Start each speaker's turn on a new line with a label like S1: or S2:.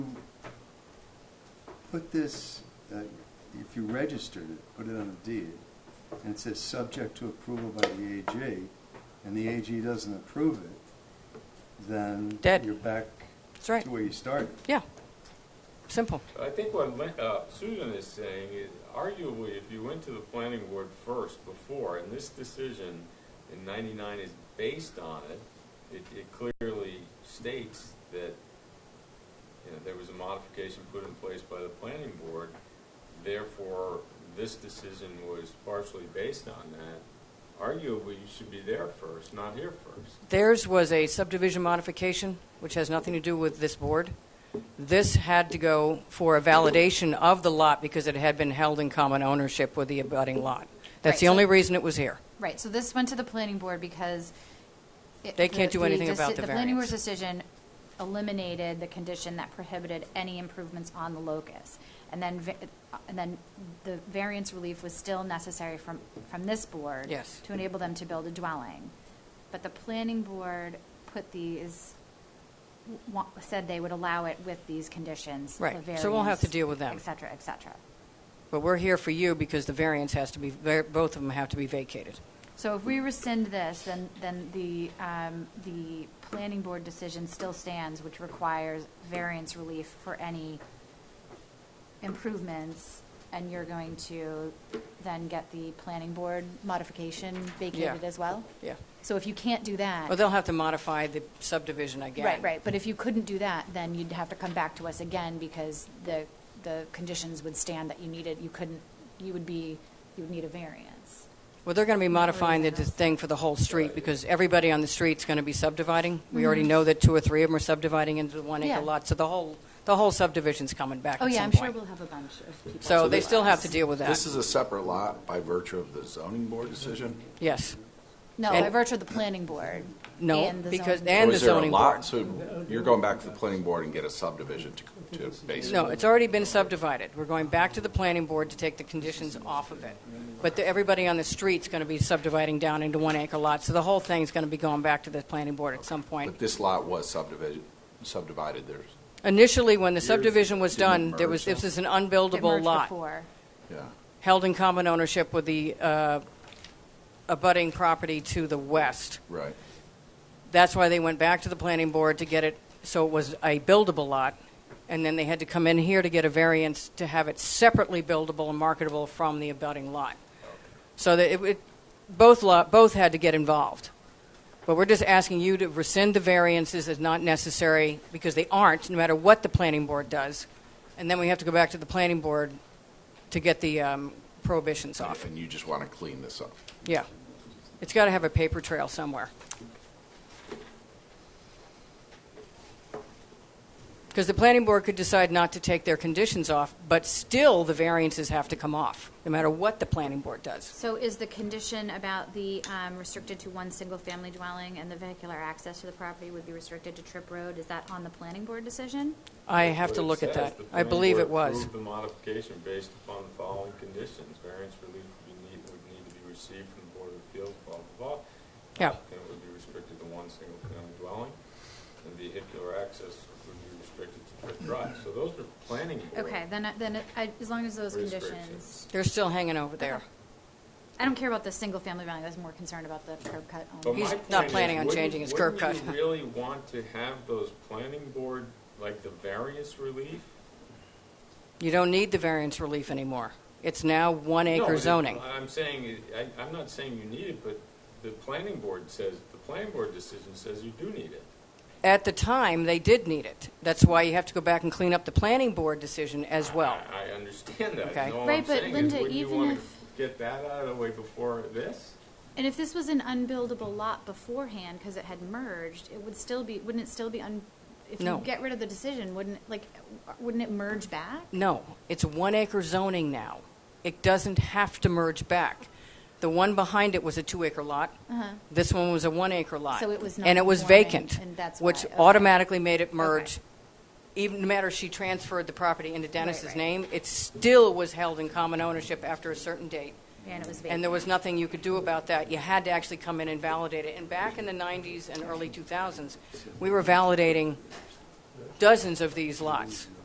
S1: put this, uh, if you registered it, put it on a deed, and it says subject to approval by the AG, and the AG doesn't approve it, then
S2: Dead.
S1: you're back
S2: That's right.
S1: to where you started.
S2: Yeah. Simple.
S3: I think what Lin- uh, Susan is saying is arguably if you went to the planning board first before, and this decision in ninety-nine is based on it, it, it clearly states that, you know, there was a modification put in place by the planning board, therefore, this decision was partially based on that. Arguably, you should be there first, not here first.
S2: Theirs was a subdivision modification, which has nothing to do with this board. This had to go for a validation of the lot because it had been held in common ownership with the abutting lot. That's
S4: Right,
S2: the
S4: so-
S2: only reason it was here.
S4: Right, so this went to the planning board because. it-
S2: They can't
S4: the-
S2: do anything about
S4: deci-
S2: the
S4: The planning board's
S2: variance.
S4: decision eliminated the condition that prohibited any improvements on the locus. And then, va- and then the variance relief was still necessary from, from this board.
S2: Yes.
S4: To enable them to build a dwelling. But the planning board put these, wa- said they would allow it with these conditions. the
S2: Right, so we'll have to
S4: variance,
S2: deal with them.
S4: Et cetera, et cetera.
S2: But we're here for you because the variance has to be, both of them have to be vacated.
S4: So if we rescind this, then, then the, um, the planning board decision still stands, which requires variance relief for any improvements, and you're going to then get the planning board modification vacated
S2: Yeah.
S4: as well?
S2: Yeah.
S4: So if you can't do that.
S2: Well, they'll have to modify the subdivision again.
S4: Right, right, but if you couldn't do that, then you'd have to come back to us again, because the, the conditions would stand that you needed, you couldn't, you would be, you would need a variance.
S2: Well, they're going to be modifying the thing for the whole street because everybody on the street's going to be subdividing. We already know that two or three of them are subdividing into the one
S4: Mm-hmm. Yeah.
S2: acre lot, so the whole, the whole subdivision's coming back
S4: Oh,
S2: at
S4: yeah,
S2: some
S4: I'm sure
S2: point.
S4: we'll have a bunch of people.
S2: So they
S5: this-
S2: still have to deal with
S5: This
S2: that.
S5: is a separate lot by virtue of the zoning board decision?
S2: Yes.
S4: No,
S2: And-
S4: by virtue of the planning board.
S2: No,
S4: and the
S2: because,
S4: zoning-
S2: and
S5: Or
S2: the
S5: is there a
S2: zoning
S5: lot?
S2: board.
S5: So you're going back to the planning board and get a subdivision to, to base.
S2: No, it's already been subdivided. We're going back to the planning board to take the conditions off of it. But the- everybody on the street's going to be subdividing down into one acre lots, so the whole thing's going to be going back to the planning board at some point.
S5: But this lot was subdivided, subdivided, there's,
S2: Initially, when the subdivision was
S5: didn't
S2: done, there was,
S5: merge,
S2: this
S5: though.
S2: is an
S4: It
S2: unbuildable
S4: merged
S2: lot.
S4: before.
S5: yeah.
S2: held in common ownership with the uh, abutting property to the west.
S5: Right.
S2: That's why they went back to the planning board to get it, so it was a buildable lot, and then they had to come in here to get a variance to have it separately buildable and marketable from the abutting lot. So that it, it both lot, both had to get involved. But we're just asking you to rescind the variances as not necessary, because they aren't, no matter what the planning board does. And then we have to go back to the planning board to get the um, prohibitions off.
S5: And you just want to clean this up.
S2: Yeah. It's got to have a paper trail somewhere. Because the planning board could decide not to take their conditions off, but still the variances have to come off, no matter what the planning board does.
S4: So is the condition about the um, restricted to one single-family dwelling and the vehicular access to the property would be restricted to Trip Road, is that on the planning board decision?
S2: I have to
S3: But it
S2: look at
S3: says
S2: that.
S3: the
S2: I
S3: planning
S2: believe
S3: board
S2: it was.
S3: approved the modification based upon the following conditions. Variance relief would be need, would need to be received from the Board of Appeals, blah, blah, blah.
S2: Yeah.
S3: And it would be restricted to one single-family dwelling, and vehicular access would be restricted to Cliff Drive. So those are planning board.
S4: Okay, then, I- then, I- as long as those
S3: Restrictions.
S4: conditions,
S2: They're still hanging over there.
S4: Okay. I don't care about the single-family dwelling, I was more concerned about the curb cut
S3: But
S4: only.
S2: He's
S3: my
S2: not
S3: point is,
S2: planning on
S3: wouldn't-
S2: changing his curb
S3: wouldn't
S2: cut.
S3: you really want to have those planning board, like the variance relief?
S2: You don't need the variance relief anymore. It's now one
S3: No,
S2: acre
S3: it-
S2: zoning.
S3: I'm saying, it- I, I'm not saying you need it, but the planning board says, the planning board decision says you do need it.
S2: At the time, they did need it. That's why you have to go back and clean up the planning board decision as well.
S3: I, I understand that.
S2: Okay.
S3: And all I'm
S4: Right, but
S3: saying is,
S4: Linda,
S3: wouldn't you
S4: even
S3: want to
S4: if-
S3: get that out of the way before this?
S4: And if this was an unbuildable lot beforehand, because it had merged, it would still be, wouldn't it still be un, if
S2: No.
S4: you get rid of the decision, wouldn't, it, like, wouldn't it merge back?
S2: No, it's one acre zoning now. It doesn't have to merge back. The one behind it was a two acre lot. This one was a one acre lot.
S4: Uh-huh. So it was
S2: And it was
S4: non-conforming,
S2: vacant.
S4: and that's
S2: Which
S4: why, okay.
S2: automatically made it merge. Even no matter if she transferred the property into Dennis's
S4: right.
S2: name, it still was held in common ownership after a certain date.
S4: And it was vacant.
S2: And there was nothing you could do about that. You had to actually come in and validate it. And back in the 90s and early 2000s, we were validating dozens of these lots.